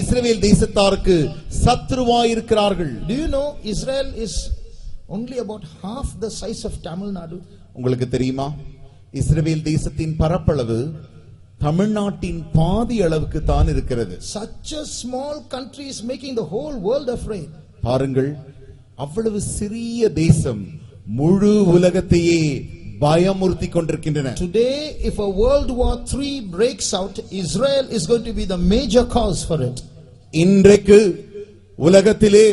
இஸ்ரவேல் தேசத்தாருக்கு சத்ருவாயிருக்கிறார்கள் Do you know Israel is only about half the size of Tamil Nadu? உங்களுக்கு தெரியுமா இஸ்ரவேல் தேசத்தின் பரப்பளவு தமிழ்நாட்டின் பாதி அளவுக்கு தான் இருக்கிறது Such a small country is making the whole world afraid. பாருங்கள் அவ்வளவு சிறிய தேசம் முழு உலகத்தையே பயமுறுத்தி கொண்டிருக்கின்றன Today, if a World War III breaks out, Israel is going to be the major cause for it. இன்றைக்கு உலகத்திலே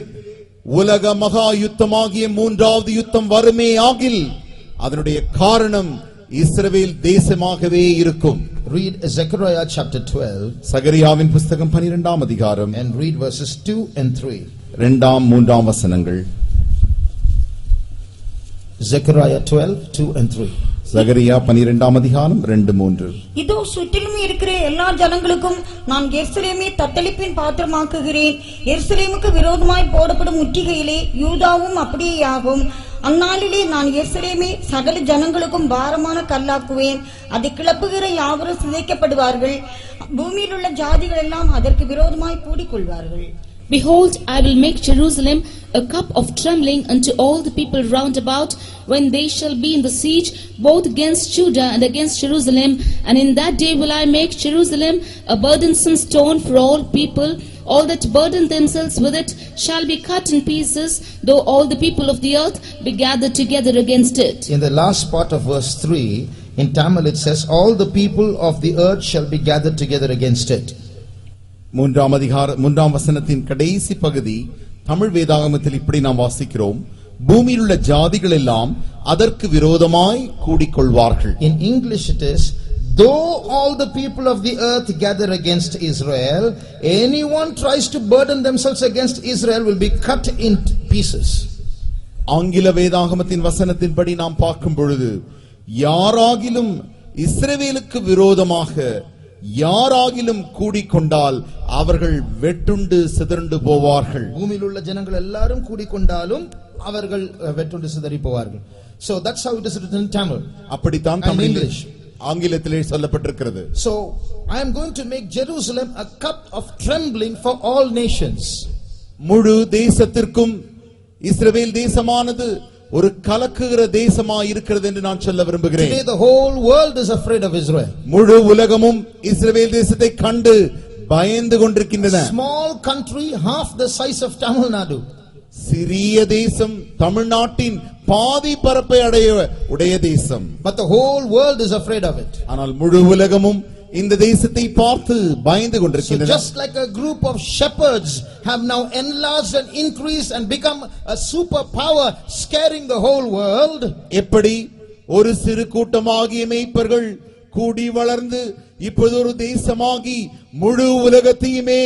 உலக மகா யுத்தமாகிய மூன்றாவது யுத்தம் வருமே ஆகில் அதனுடைய காரணம் இஸ்ரவேல் தேசமாகவே இருக்கும் Read Zechariah chapter 12 சகரியாவின் புஸ்தகம் பனிரெண்டாம் அதிகாரம் and read verses 2 and 3. இரண்டாம் மூன்றாம் வசனங்கள் Zechariah 12, 2 and 3. சகரியா பனிரெண்டாம் அதிகாரம் ரெண்டு மூன்று இதோ சுற்றிலும் இருக்கிற எல்லா ஜனங்களுக்கும் நான் எருசலேமே தத்தளிப்பின் பாத்திரமாக்குகிறேன் எருசலேமுக்கு விரோதமாய் போடப்படும் முற்றுகையிலே யூதாவும் அப்படியே ஆகும் அந்நாளிலே நான் எருசலேமே சகல ஜனங்களுக்கும் பாரமான கல்லாக்குவேன் அதை கிளப்புகிற யாவரும் சிதைக்கப்படுவார்கள் பூமியில் உள்ள ஜாதிகள் எல்லாம் அதற்கு விரோதமாய் கூடிக்கொள்வார்கள் Behold, I will make Jerusalem a cup of trembling unto all the people round about, when they shall be in the siege, both against Judah and against Jerusalem. And in that day will I make Jerusalem a burdensome stone for all people. All that burden themselves with it shall be cut in pieces, though all the people of the earth be gathered together against it. In the last part of verse 3, in Tamil it says, All the people of the earth shall be gathered together against it. மூன்றாம் அதிகார மூன்றாம் வசனத்தின் கடைசி பகுதி தமிழ் வேதாகமத்தில் இப்படி நாம் வாசிக்கிறோம் பூமியில் உள்ள ஜாதிகள் எல்லாம் அதற்கு விரோதமாய் கூடிக்கொள்வார்கள் In English, it is though all the people of the earth gather against Israel, anyone tries to burden themselves against Israel will be cut in pieces. ஆங்கில வேதாகமத்தின் வசனத்தின்படி நாம் பார்க்கும் பொழுது யாராகிலும் இஸ்ரவேலுக்கு விரோதமாக யாராகிலும் கூடிக்கொண்டால் அவர்கள் வெட்டுண்டு சிதறுண்டு போவார்கள் பூமியில் உள்ள ஜனங்கள் எல்லாரும் கூடிக்கொண்டாலும் அவர்கள் அஹ், வெட்டுண்டு சிதறி போவார்கள் So that's how it is written in Tamil. அப்படித்தான் And தமிழ் English. ஆங்கிலத்திலே சொல்லப்பட்டிருக்கிறது So I am going to make Jerusalem a cup of trembling for all nations. முழு தேசத்திற்கும் இஸ்ரவேல் தேசமானது ஒரு கலக்குகிற தேசமா இருக்கிறது என்று நான் சொல்ல விரும்புகிறேன் Today the whole world is afraid of Israel. முழு உலகமும் இஸ்ரவேல் தேசத்தை கண்டு பயந்து கொண்டிருக்கின்றன Small country, half the size of Tamil Nadu. சிறிய தேசம் தமிழ்நாட்டின் பாதி பரப்பை அடைய உடைய தேசம் But the whole world is afraid of it. ஆனால் முழு உலகமும் இந்த தேசத்தை பார்த்து பயந்து So கொண்டிருக்கின்றன just like a group of shepherds have now enlarged and increased and become a superpower, scaring the whole world, எப்படி ஒரு சிறு கூட்டமாகிய மேய்ப்பர்கள் கூடி வளர்ந்து இப்போது ஒரு தேசமாகி முழு உலகத்தையுமே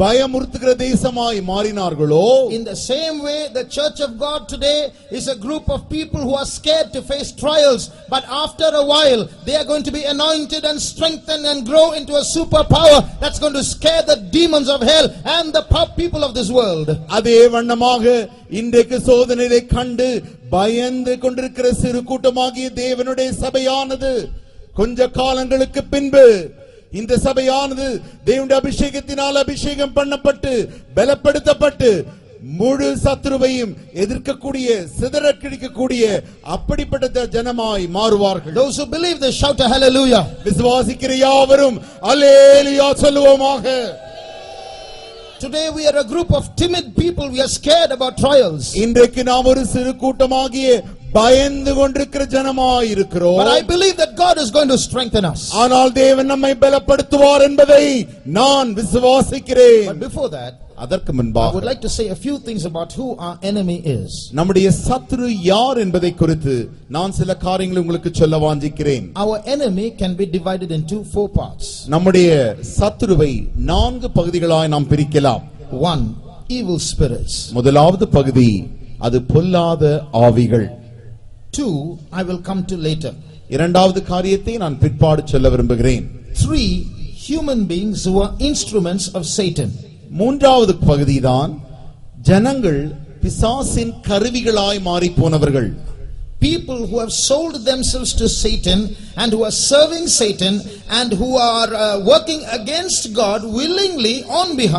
பயமுறுத்துகிற தேசமாய் மாறினார்களோ in the same way the church of God today is a group of people who are scared to face trials, but after a while they are going to be anointed and strengthened and grow into a superpower that's going to scare the demons of hell and the po- people of this world. அதே வண்ணமாக இன்றைக்கு சோதனையை கண்டு பயந்து கொண்டிருக்கிற சிறு கூட்டமாகிய தேவனுடைய சபையானது கொஞ்ச காலங்களுக்கு பின்பு இந்த சபையானது தேவனுடைய அபிஷேகத்தினால் அபிஷேகம் பண்ணப்பட்டு பலப்படுத்தப்பட்டு முழு சத்ருவையும் எதிர்க்கக்கூடிய சிதற கிழிக்கக்கூடிய அப்படிப்பட்ட ஜ- ஜனமாய் மாறுவார்கள் Those who believe this shout a hallelujah. விசுவாசிக்கிற யாவரும் அல்லேலியா சொல்லுவோமாக Today we are a group of timid people, we are scared about trials. இன்றைக்கு நாம் ஒரு சிறு கூட்டமாகிய பயந்து கொண்டிருக்கிற ஜனமாய் But I இருக்கிறோம் believe that God is going to strengthen us. ஆனால் தேவன் நம்மை பலப்படுத்துவார் என்பதை நான் But விசுவாசிக்கிறேன் before that, அதற்கு I would முன்பாக like to say a few things about who our enemy is. நம்முடைய சத்ரு யார் என்பதை குறித்து நான் சில காரியங்களை உங்களுக்கு சொல்ல வாஞ்சிக்கிறேன் Our enemy can be divided into four parts. நம்முடைய சத்ருவை நான்கு பகுதிகளாய் நாம் பிரிக்கலாம் One, evil spirits. முதலாவது பகுதி அது பொல்லாத ஆவிகள் Two, I will come to later. இரண்டாவது காரியத்தை நான் பிற்பாடு சொல்ல விரும்புகிறேன் Three, human beings who are instruments of Satan. மூன்றாவது பகுதிதான் ஜனங்கள் பிசாசின் கருவிகளாய் மாறிப் போனவர்கள் People who have sold themselves to Satan and who are serving Satan and who are uh, working against God willingly on behalf